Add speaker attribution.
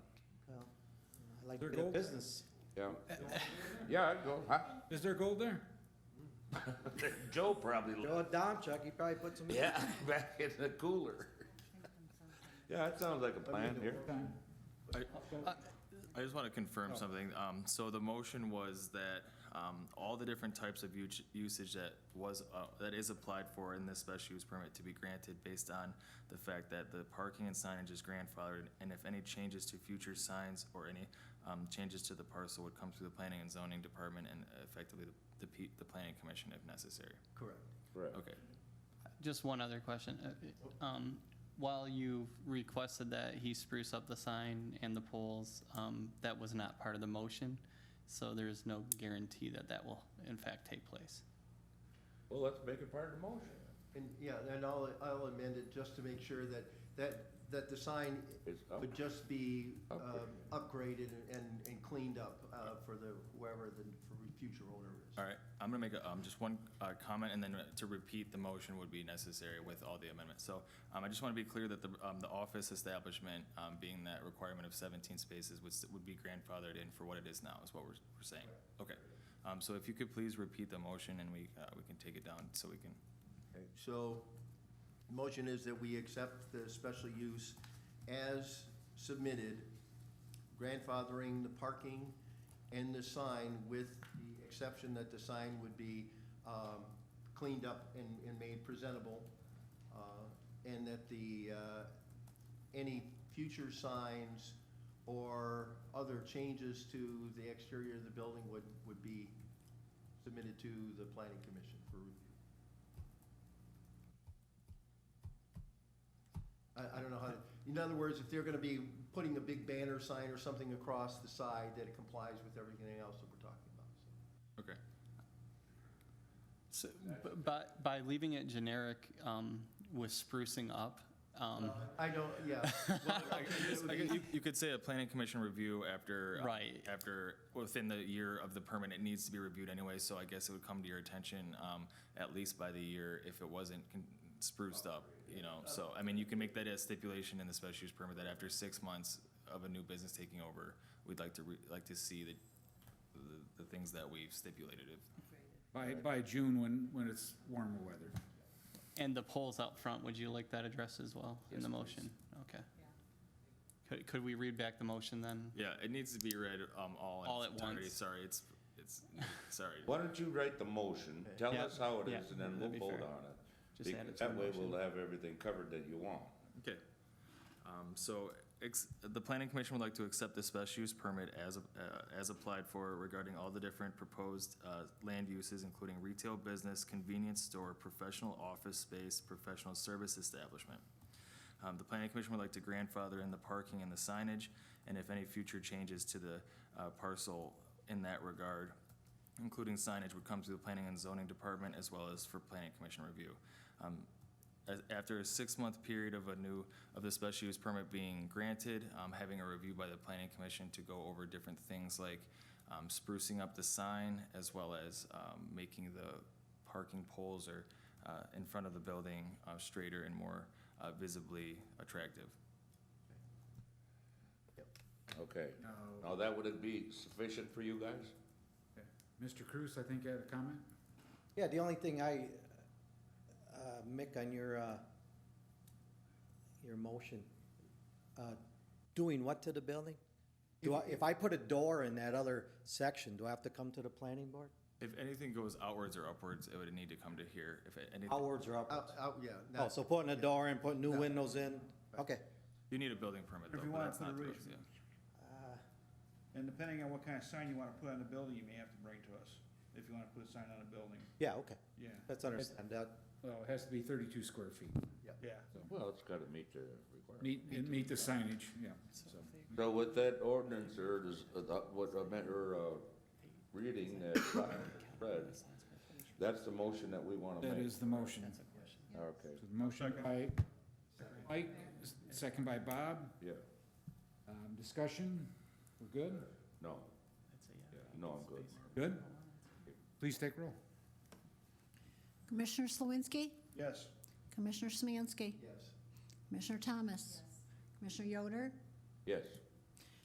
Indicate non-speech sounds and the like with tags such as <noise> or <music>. Speaker 1: like
Speaker 2: Their
Speaker 1: bit of
Speaker 2: goal-
Speaker 1: business.
Speaker 3: Yeah. Yeah, I'd go, huh?
Speaker 2: Is there gold there?
Speaker 3: Joe probably,
Speaker 1: Joe Domchuck, he probably put some.
Speaker 3: yeah, <laughs> back in the cooler. Yeah, that sounds like a plan here.
Speaker 4: I just want to confirm something. Um, So the motion was that um, all the different types of us- usage that was, uh, that is applied for in this special use permit to be granted based on the fact that the parking and signage is grandfathered, and if any changes to future signs or any um, changes to the parcel would come through the planning and zoning department and effectively the- the, P- the planning commission if necessary.
Speaker 1: Correct.
Speaker 3: Right.
Speaker 4: Okay.
Speaker 5: Just one other question. Uh, it- um, While you've requested that he spruce up the sign and the poles, um, that was not part of the motion, so there is no guarantee that that will in fact take place.
Speaker 3: Well, let's make it part of the motion.
Speaker 6: And, yeah, and I'll, I'll amend it just to make sure that, that, that the sign
Speaker 3: It's up.
Speaker 6: would just be um, upgraded and, and cleaned up uh, for the, whoever the future owner is.
Speaker 4: All right, I'm gonna make a, um, just one, uh, comment and then to repeat the motion would be necessary with all the amendments. So, um, I just wanna be clear that the, um, the office establishment, um, being that requirement of seventeen spaces would, s- would be grandfathered in for what it is now, is what we're, we're saying. Okay, um, so if you could please repeat the motion and we, uh, we can take it down so we can,
Speaker 6: So, the motion is that we accept the special use as submitted, grandfathering the parking and the sign with the exception that the sign would be um, cleaned up and, and made presentable, uh, and that the, uh, any future signs or other changes to the exterior of the building would, would be submitted to the planning commission for review. I, I don't know how, in other words, if they're gonna be putting a big banner sign or something across the side that it complies with everything else that we're talking about, so.
Speaker 4: okay.
Speaker 5: So, b- by, by leaving it generic um, with sprucing up,
Speaker 3: Uh-huh.
Speaker 5: um,
Speaker 6: I don't,
Speaker 4: <laughs>
Speaker 6: yeah. Well, I think it would
Speaker 4: I
Speaker 6: be-
Speaker 4: guess You, you could say a planning commission review after. uh,
Speaker 5: Right.
Speaker 4: After, within the year of the permit, it needs to be reviewed anyway, so I guess it would come to your attention, um, at least by the year if it wasn't con- spruced up, you know, so, I mean, you can make that a stipulation in the special use permit that after six months of a new business taking over, we'd like to, re- like to see the, the, the things that we've stipulated if,
Speaker 2: By, by June, when, when it's warmer weather.
Speaker 5: and the poles out front, would you like that addressed as well in the motion? Okay. Could, could we read back the motion then?
Speaker 4: yeah, it needs to be read, um, all. in
Speaker 5: All
Speaker 4: its
Speaker 5: at
Speaker 4: entirety.
Speaker 5: once.
Speaker 4: Sorry, it's, it's, sorry. <laughs>
Speaker 3: Why don't you write the motion, tell
Speaker 5: Yeah,
Speaker 3: us how it
Speaker 5: yeah,
Speaker 3: is, and then
Speaker 5: that'd
Speaker 3: we'll
Speaker 5: be
Speaker 3: vote
Speaker 5: fair.
Speaker 3: on it.
Speaker 5: Just
Speaker 3: Be-
Speaker 5: add it to
Speaker 3: That
Speaker 5: the
Speaker 3: way
Speaker 5: motion.
Speaker 3: we'll have everything covered that you want.
Speaker 4: Okay. Um, So, ex- the planning commission would like to accept the special use permit as, uh, as applied for regarding all the different proposed uh, land uses, including retail business, convenience store, professional office space, professional service establishment. Um, The planning commission would like to grandfather in the parking and the signage, and if any future changes to the uh, parcel in that regard, including signage, would come to the planning and zoning department as well as for planning commission review. Um, as- After a six-month period of a new, of the special use permit being granted, um, having a review by the planning commission to go over different things like um, sprucing up the sign as well as um, making the parking poles or uh, in front of the building uh, straighter and more uh, visibly attractive.
Speaker 3: Okay.
Speaker 2: Now,
Speaker 3: Now, that would it be sufficient for you guys?
Speaker 2: Mr. Cruz, I think, had a comment?
Speaker 1: Yeah, the only thing I, uh, Mick, on your, uh, your motion, uh, doing what to the building? Do I, if I put a door in that other section, do I have to come to the planning board?
Speaker 4: If anything goes outwards or upwards, it would need to come to here. If it- anything,
Speaker 1: Outwards or upwards?
Speaker 6: Out, out, yeah.
Speaker 1: Oh,
Speaker 6: not-
Speaker 1: so putting a door in, putting new windows in, okay.
Speaker 4: you need a building permit though,
Speaker 7: If you
Speaker 4: but
Speaker 7: want
Speaker 4: that's
Speaker 7: to put a
Speaker 4: not through
Speaker 7: roof.
Speaker 4: us, yeah.
Speaker 7: And depending on what kind of sign you wanna put on the building, you may have to bring to us, if you wanna put a sign on a building,
Speaker 1: Yeah, okay,
Speaker 7: yeah,
Speaker 1: that's understand, that,
Speaker 2: Well, it has to be thirty-two square feet.
Speaker 7: yeah.
Speaker 3: Well, it's gotta meet the requirement.
Speaker 2: Meet, and meet the signage, yeah, so.
Speaker 3: So with that ordinance or this, uh, the- what I meant, or, uh, reading that read, that's the motion that we wanna
Speaker 2: That
Speaker 3: make.
Speaker 2: is the motion.
Speaker 3: Okay,
Speaker 2: So the motion by Mike, s- second by Bob.
Speaker 3: yeah,
Speaker 2: Um, discussion, we're good?
Speaker 3: no, no, I'm good.
Speaker 2: Good? Please take roll.
Speaker 8: Commissioner Slawinski?
Speaker 7: Yes,
Speaker 8: Commissioner Smansky?
Speaker 6: Yes.
Speaker 8: Commissioner Thomas? Commissioner Yoder?
Speaker 3: Yes,